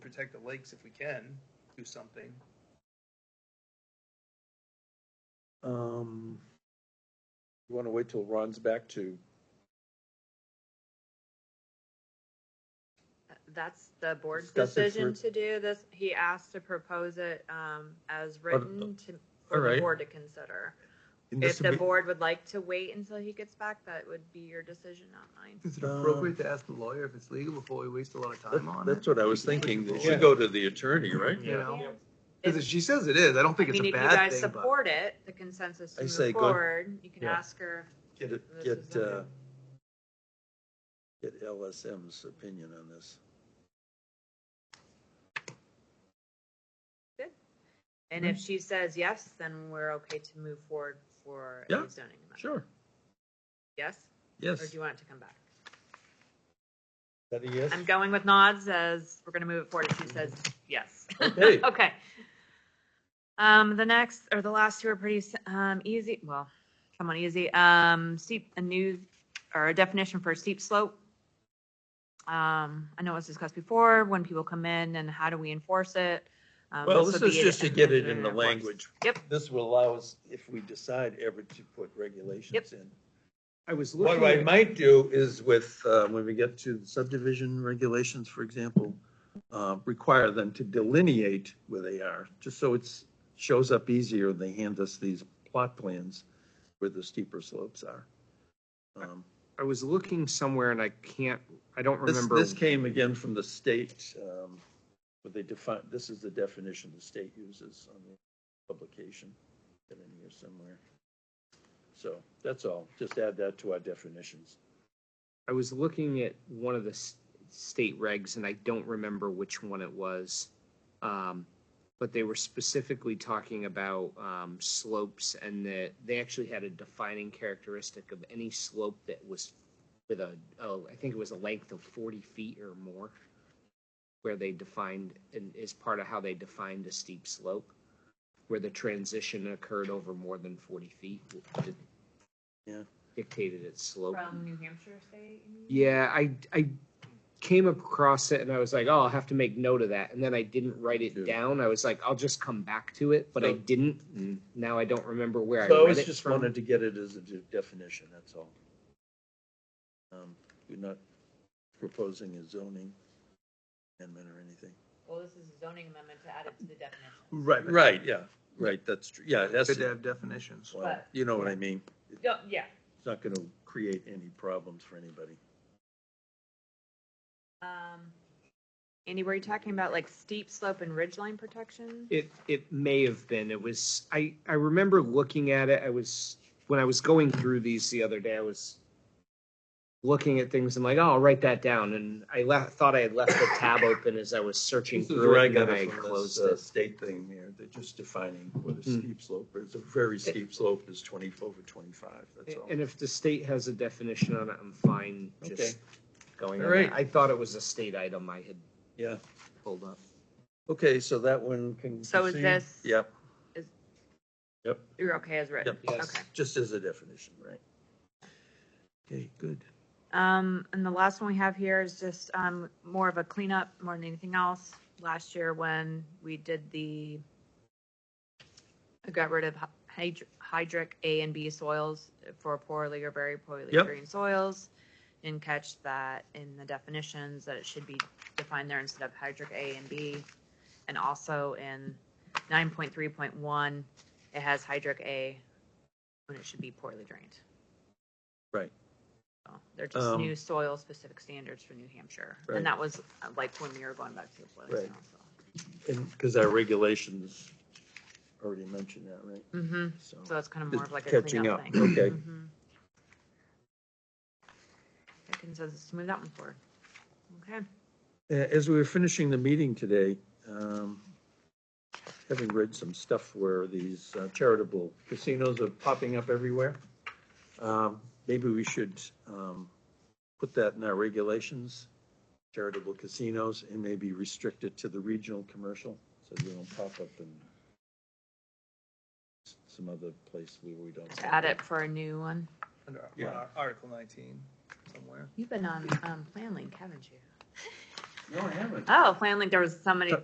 protect the lakes if we can do something. Um, you want to wait till Ron's back to, That's the board's Discuss it decision for- to do this. He asked to propose it um, as written to, uh, All for the right. board to consider. And If this the would be, board would like to wait until he gets back, that would be your decision, not mine. Is it Um, appropriate to ask the lawyer if it's legal before we waste a lot of time on that's it? what I was thinking, it Yeah. should go to the attorney, right? You know, Yeah. because if she says it is, I don't I think it's mean, a if you guys bad thing, but support it, the consensus I to say move go- forward, you can Yeah. ask her. Get, it- This is get, uh, okay. get LSM's opinion on this. And Mm-hmm. if she says yes, then we're okay to move forward for Yeah, a zoning amendment. sure. Yes? Or Yes. do you want it to come back? Is that a yes? I'm going with nods as we're gonna move it forward if she says yes. Okay. Okay. Um, the next, or the last two are pretty, s- um, easy, well, come on, easy, um, steep, a new, or a definition for steep slope. Um, I know it was discussed before, when people come in and how do we enforce it? Um, Well, would this is be just to an get it in engineering the enforce. language. Yep. This will allow us, if we decide ever to put regulations in. I was What looking I at, might do is with, uh, when we get to the subdivision regulations, for example, uh, require them to delineate where they are, just so it's, shows up easier, when they hand us these plot plans where the steeper slopes are. Um, I was looking somewhere and I can't, I don't This, remember. this came again from the state, um, what they define, this is the definition the state uses on the publication, that in here somewhere. So, that's all, just add that to our definitions. I was looking at one of the s- state regs and I don't remember which one it was. Um, but they were specifically talking about, um, slopes and that they actually had a defining characteristic of any slope that was with a, oh, I think it was a length of forty feet or more. Where they defined, and is part of how they defined a steep slope, where the transition occurred over more than forty feet. it Yeah. Dictated its slope. From New Hampshire State? you mean? Yeah, I I came across it and I was like, oh, I'll have to make note of that. And then I didn't write it Yeah. down. I was like, I'll just come back to it, but I So- didn't. And now I don't remember where Mm. So I I read was it just from. wanted to get it as a de- definition, that's all. Um, We're not proposing a zoning amendment or anything. Well, this is a zoning amendment to add it to the definition. Right, right, yeah, right, that's, true. yeah, that's, Good to have definitions. well, you know what I mean? It's Yeah, Yeah, not gonna create any problems for anybody. um, Andy, were you talking about like steep slope and ridgeline protection? It it may have been. It was I I remember looking at it. I was when I was going through these the other day. I was looking at things. I'm like, oh, I'll write that down. And I left, thought I had left the tab open as I was searching This is through where it, I and then got I it from this closed uh, it. state thing here, they're just defining what a Hmm. steep slope is, a very steep slope is twenty, over twenty-five, that's all. And if the state has a definition on it, I'm fine Okay. just going All on that. right. I thought it was a state item I had Yeah, pulled up. okay, so that one can. So is proceed? this- Yep. You're okay as written? Yep. Okay. Just as a definition, right? Okay, good. Um, and the last one we have here is just, um, more of a cleanup more than anything else. Last year when we did the, got rid of hydr- hydric A and B soils for poorly or very poorly Yep. drained soils. And catch that in the definitions that it should be defined there instead of hydric A and B. And also in nine point three point one, it has hydric A when it should be poorly drained. Right. So They're just Um, new soil specific standards for New Hampshire. Right. And that was uh, like when we were going back to the Right. Flint. And, because our regulations already mentioned that, right? Mm-hmm. So, So that's kind of more of like a Catching cleanup up, thing. okay. Mhm. I can says to move that one forward. Okay. A- Uh, as we were finishing the meeting today, um, having read some stuff where these uh, charitable casinos are popping up everywhere, um, maybe we should, um, put that in our regulations, charitable casinos, and maybe restrict it to the regional commercial, so they don't pop up in s- some other place where we don't. Just add it for a new one. Under Yeah. Article nineteen somewhere. You've been on, um, Planlink, haven't you? Oh, finally, there was somebody